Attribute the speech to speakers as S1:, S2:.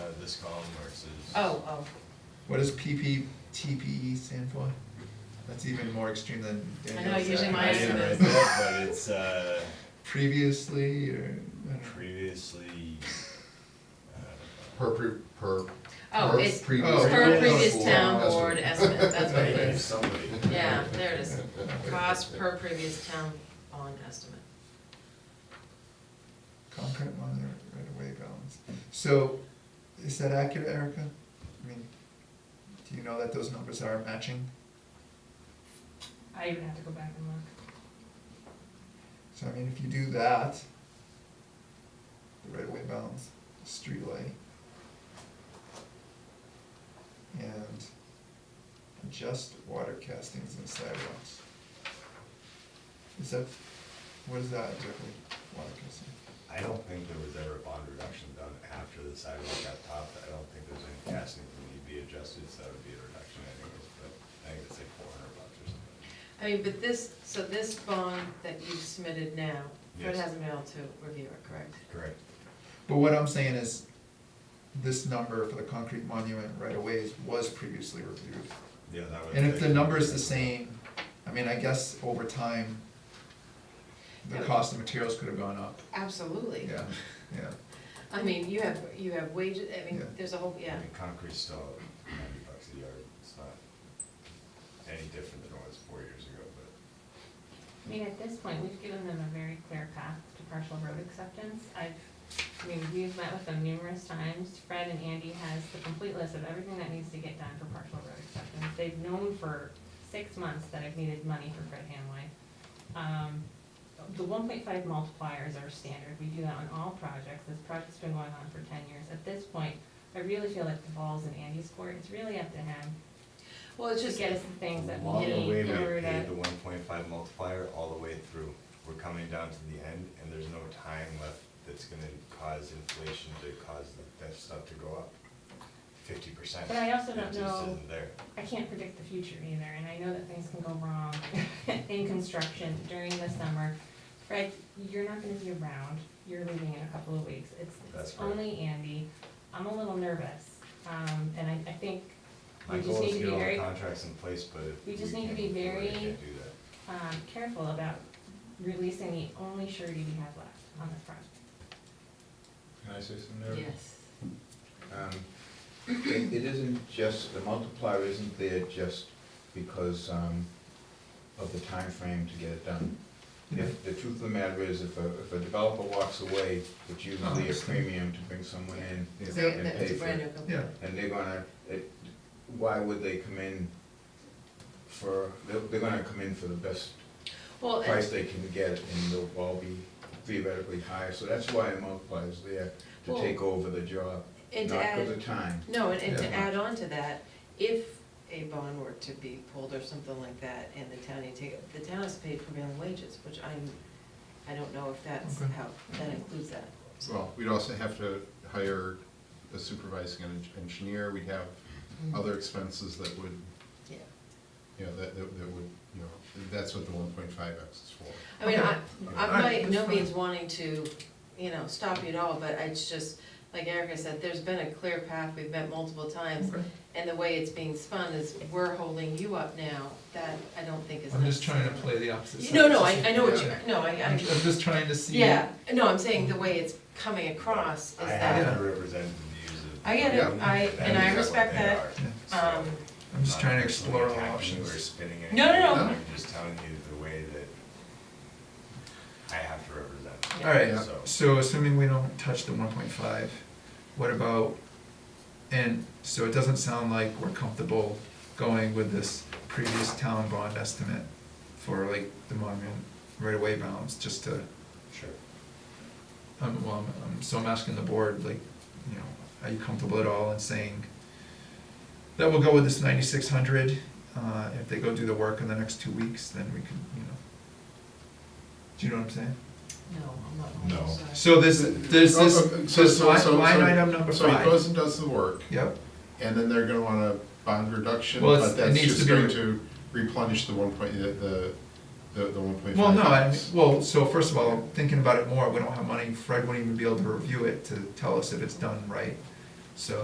S1: Uh, this column versus.
S2: Oh, oh,
S3: What does PPTPE E stand for? That's even more extreme than
S2: know,
S3: Daniel's.
S2: usually
S3: uh,
S2: mine
S1: I didn't write
S2: is-
S1: that, but it's, uh,
S3: Previously, or, I don't know.
S1: previously, uh,
S4: Per, pre- per.
S2: oh,
S4: per
S2: it's per
S4: previous-
S3: Oh, yeah.
S2: previous
S4: Board
S2: town
S4: estimate.
S2: board estimate, that's what it
S1: if
S2: is.
S1: somebody.
S2: Yeah, there it is, cost per previous town bond estimate.
S3: Concrete monitor right away balance. So, is that accurate, Erica? I mean, do you know that those numbers are matching?
S5: I even have to go back and look.
S3: So I mean, if you do that, the right of way balance, street light. And adjust water castings and sidewalks. Is that, what is that exactly, water casting?
S1: I don't think there was ever a bond reduction done after the sidewalk got topped, I don't think there's any castings that need to be adjusted, so that would be a reduction anyways, but I think it's like four hundred bucks or something.
S2: I mean, but this, so this bond that you've submitted now, Fred
S1: Yes.
S2: hasn't been able to review it, correct?
S1: Correct.
S3: But what I'm saying is, this number for the concrete monument right of ways was previously reviewed.
S1: Yeah, that would.
S3: And if the number is the same, I mean, I guess over time, the
S2: Yeah.
S3: cost of materials could have gone up,
S2: Absolutely.
S3: yeah, yeah.
S2: I mean, you have, you have wages, I mean,
S3: Yeah.
S2: there's a whole,
S1: I
S2: yeah,
S1: mean, concrete's still ninety bucks a yard, it's not any different than it was four years ago, but.
S5: I mean, at this point, we've given them a very clear path to partial road acceptance. I've, I mean, we've met with them numerous times. Fred and Andy has the complete list of everything that needs to get done for partial road acceptance. They've known for six months that I've needed money for Fred Hanway. Um, the one point five multipliers are standard. We do that on all projects. This project's been going on for ten years. At this point, I really feel like the ball's in Andy's court. It's really up to him
S2: well, it's
S5: to
S2: just,
S5: get us the things that we
S1: Along the way,
S5: need
S1: we
S5: in order
S1: paid the
S5: to.
S1: one point five multiplier all the way through. We're coming down to the end, and there's no time left that's gonna cause inflation to cause the- that stuff to go up fifty percent.
S5: But I also don't
S1: It just
S5: know-
S1: isn't there.
S5: I can't predict the future either, and I know that things can go wrong in construction during the summer. Fred, you're not gonna be around, you're leaving in a couple of weeks, it's,
S1: That's
S5: it's
S1: correct.
S5: only Andy, I'm a little nervous, um, and I, I think
S1: My
S5: we just
S1: goal
S5: need
S1: is to
S5: to be
S1: get all the
S5: very,
S1: contracts in place, but if
S5: we
S1: we
S5: just need to
S1: can't
S5: be
S1: afford it,
S5: very-
S1: I can't do that.
S5: um, careful about releasing the only surety we have left on this project.
S6: Can I say something there?
S2: yes.
S6: Um, It it isn't just, the multiplier isn't there just because um, of the time frame to get it done. If, the truth of the matter is, if a, if a developer walks away, it's usually a premium to bring someone in
S3: Yeah.
S2: They-
S6: and
S2: that was
S6: pay
S2: a
S6: for
S2: brand
S6: it.
S2: new company.
S3: Yeah,
S6: And they're gonna, it- why would they come in for, they're, they're gonna come in for the best
S2: Well, and-
S6: price they can get, and they'll all be theoretically higher, so that's why a multiplier is there, to
S2: Well,
S6: take over the job,
S2: and
S6: not
S2: to add.
S6: for the time.
S2: No, and, and to
S6: Yeah.
S2: add on to that, if a bond were to be pulled or something like that, and the town, you take, the town has paid prevailing wages, which I'm, I don't know if that's
S3: Okay.
S2: how, that includes that.
S4: Well, we'd also have to hire a supervising en- engineer, we'd have other expenses that would,
S2: Yeah.
S4: you know, that, that that would, you know, that's what the one point five X is for.
S2: I mean, I,
S3: Okay.
S2: I'm
S3: Alright,
S2: by
S3: that's
S2: no
S3: fine.
S2: means wanting to, you know, stop you at all, but it's just, like Erica said, there's been a clear path, we've met multiple times,
S3: okay.
S2: and the way it's being spun is, we're holding you up now, that I don't think is
S3: I'm just trying to
S2: necessary.
S3: play the opposite side.
S2: No, no, I, I know what you,
S3: Yeah.
S2: no, I,
S3: I'm, I'm
S2: I,
S3: just trying to see.
S2: yeah, no, I'm saying the way it's coming across is
S1: I
S2: that.
S1: have to represent the views of.
S2: I get
S4: it.
S2: I-
S1: That
S2: and I
S1: is what
S2: respect
S1: they
S2: that.
S1: are, so
S2: Um,
S3: I'm just
S1: not
S3: trying
S1: personally
S3: to explore all
S1: attacking you
S3: options.
S1: or spinning
S2: No, no,
S1: anything.
S4: no.
S1: I'm just telling you the way that I have to represent. it,
S3: All right,
S1: so.
S3: so assuming we don't touch the one point five, what about, and, so it doesn't sound like we're comfortable going with this previous town bond estimate for like the monument right away balance, just to,
S1: Sure.
S3: um, well, I'm- I'm, so I'm asking the board, like, you know, are you comfortable at all in saying that we'll go with this ninety-six hundred, uh, if they go do the work in the next two weeks, then we can, you know. Do you know what I'm saying?
S2: No, I'm
S1: No.
S2: not, I'm sorry.
S3: So this, this,
S4: Oh,
S3: this,
S4: oh, so-
S3: this
S4: so- so-
S3: line, line
S4: so-
S3: item number
S4: So he goes
S3: five.
S4: and does the work,
S3: Yep,
S4: and then they're gonna want a bond reduction,
S3: Well,
S4: but
S3: it's- it
S4: that's
S3: needs to
S4: just
S3: be-
S4: going to replenish the one point, the, the, the one point five.
S3: well, no, I, well, so first of all, thinking about it more, we don't have money, Fred wouldn't even be able to review it to tell us if it's done right. So